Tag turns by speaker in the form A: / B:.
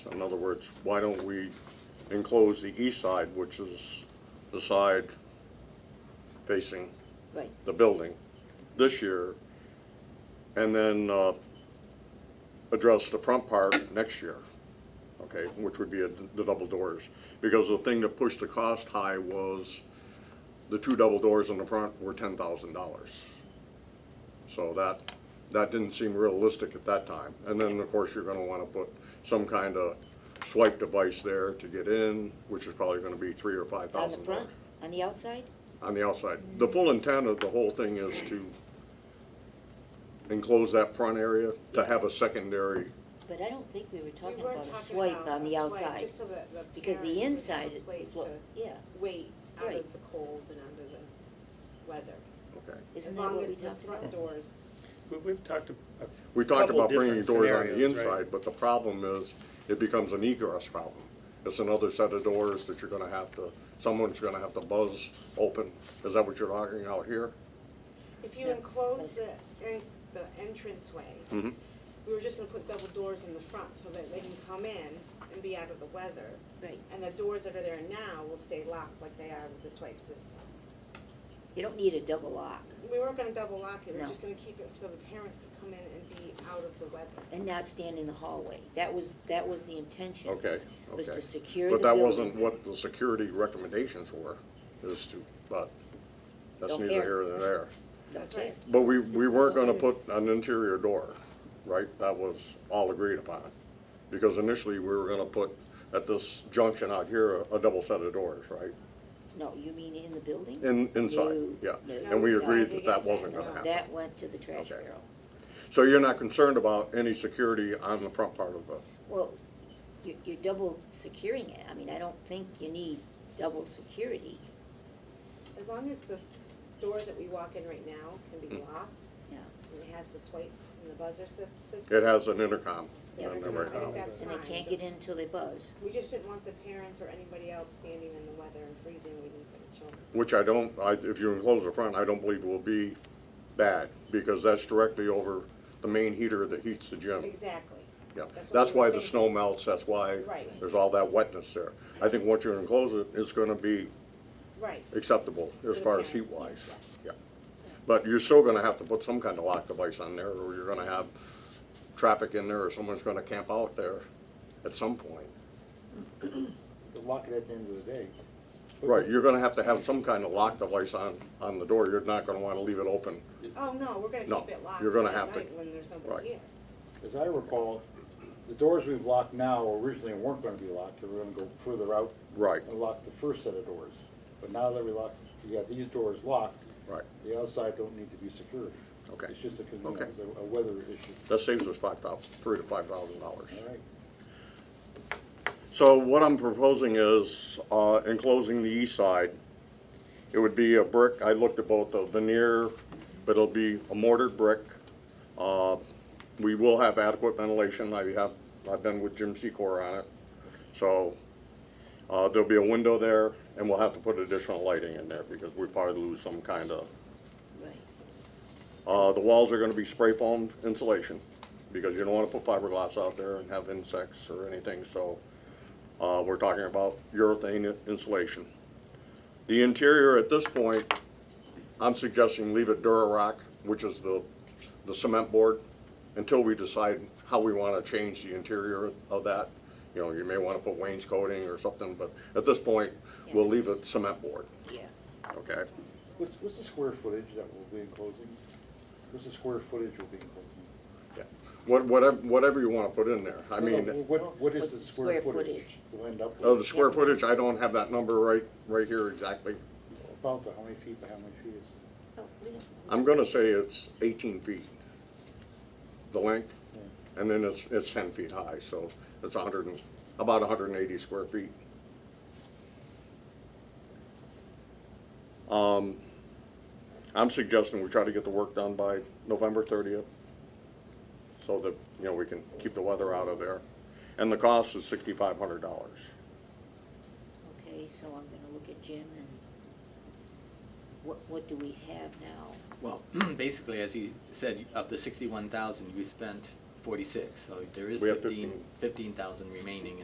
A: In other words, why don't we enclose the east side, which is the side facing
B: Right,
A: the building this year, and then uh, address the front part next year, okay, which would be a- the double doors. Because the thing that pushed the cost high was the two double doors in the front were ten thousand dollars. So that, that didn't seem realistic at that time. And then, of course, you're gonna wanna put some kind of swipe device there to get in, which is probably gonna be three or five
B: on the
A: thousand dollars
B: front, on the outside?
A: on the outside. The full intent of the whole thing is to enclose that front area, to have a secondary,
B: But I don't think we were talking
C: were
B: about a
C: talking
B: swipe
C: about
B: on
C: a
B: the
C: swipe,
B: outside,
C: just so that the
B: because
C: parents would
B: the
C: have
B: inside
C: a
B: is
C: place
B: what,
C: to
B: yeah,
C: Wait out
B: Right.
C: of the cold and under the weather.
A: okay.
B: isn't that what we talked
C: As long as the front
B: about?
C: doors,
D: We- We've talked a a
A: We talked
D: couple
A: about bringing
D: different
A: doors on the
D: scenarios, right?
A: inside, but the problem is, it becomes an egress problem. It's another set of doors that you're gonna have to, someone's gonna have to buzz open. Is that what you're talking out here?
C: if you
B: Yeah.
C: enclose the, en- the entranceway,
A: Mhm.
C: we were just gonna put double doors in the front so that they can come in and be out of the weather.
B: Right,
C: And the doors that are there now will stay locked like they are with the swipe system.
B: you don't need a double lock,
C: We weren't gonna double lock it, we
B: No.
C: were just gonna keep it so the parents could come in and be out of the weather.
B: and not stand in the hallway, that was, that was the intention.
A: Okay,
B: Was
A: okay.
B: to secure the
A: But that
B: building.
A: wasn't what the security recommendations were, is to, but that's
B: Don't
A: neither
B: care.
A: here nor there.
C: That's right.
A: But we, we weren't gonna put an interior door, right? That was all agreed upon. Because initially, we were gonna put, at this junction out here, a, a double set of doors, right?
B: No, you mean in the building?
A: In, inside,
B: No,
A: yeah.
B: no,
A: And we
B: no.
A: agreed that that wasn't gonna
C: No.
A: happen.
B: That went to the trash
A: Okay.
B: barrel.
A: So you're not concerned about any security on the front part of the,
B: Well, you're, you're double securing it, I mean, I don't think you need double security,
C: As long as the door that we walk in right now can be
A: Hmm.
C: locked,
B: yeah,
C: and it has the swipe and the buzzer sy- system.
A: it has an intercom
C: Yeah,
A: on there
C: I
A: right now.
C: think that's
B: and
C: fine.
B: they can't get in until they buzz.
C: We just didn't want the parents or anybody else standing in the weather and freezing waiting for the children.
A: Which I don't, I, if you enclose the front, I don't believe will be bad, because that's directly over the main heater that heats the gym.
C: Exactly.
A: Yeah,
C: That's what
A: that's
C: we were
A: why the
C: thinking.
A: snow melts, that's why
C: Right.
A: there's all that wetness there. I think once you enclose it, it's gonna be
C: Right.
A: acceptable as
C: the
A: far as heat
C: parents,
A: wise. Yeah.
C: yes.
A: But you're still gonna have to put some kind of lock device on there, or you're gonna have traffic in there, or someone's gonna camp out there at some point.
E: But lock it at the end of the day.
A: Right, you're gonna have to have some kind of lock device on, on the door, you're not gonna wanna leave it open.
C: Oh, no, we're gonna
A: No,
C: keep it locked
A: you're gonna
C: at
A: have to-
C: night when there's
A: right.
C: nobody here.
E: As I recall, the doors we've locked now originally weren't gonna be locked, they were gonna go further out.
A: Right.
E: And lock the first set of doors. But now that we locked, we got these doors locked.
A: Right.
E: The outside don't need to be secured.
A: Okay.
E: It's just a
A: Okay.
E: convenience, a a weather issue,
A: That saves us five thousand, three to five thousand dollars.
E: all right?
A: So what I'm proposing is, uh, enclosing the east side, it would be a brick, I looked at both the veneer, but it'll be a mortared brick. Uh, we will have adequate ventilation, I have, I've been with Jim Secor on it. So, uh, there'll be a window there, and we'll have to put additional lighting in there, because we probably lose some kind of
B: Right.
A: uh, the walls are gonna be spray foam insulation, because you don't wanna put fiberglass out there and have insects or anything, so, uh, we're talking about urethane insulation. The interior at this point, I'm suggesting leave it Durarock, which is the, the cement board, until we decide how we wanna change the interior of that. You know, you may wanna put wainscoting or something, but at this point, we'll leave it cement board,
B: Yeah,
A: okay?
E: What's, what's the square footage that will be enclosing? What's the square footage will be enclosing?
A: Yeah. What, whatever, whatever you wanna put in there, I
E: No,
A: mean.
E: no, What, what is
B: What's
E: the square footage we'll end up
A: Oh, the
E: with?
A: square footage, I don't have that number right, right here exactly.
E: About the, how many feet by how many feet is?
B: oh, we don't,
A: I'm gonna say it's eighteen feet, the length, and then it's, it's ten feet high, so it's hundred and, about hundred and eighty square feet. Um, I'm suggesting we try to get the work done by November thirtieth, so that, you know, we can keep the weather out of there. And the cost is sixty-five hundred dollars.
B: okay, so I'm gonna look at Jim and what, what do we have now?
F: Well, basically, as he said, of the sixty-one thousand, we spent forty-six, so there is
G: We have
F: fifteen,
G: 15.
F: fifteen thousand remaining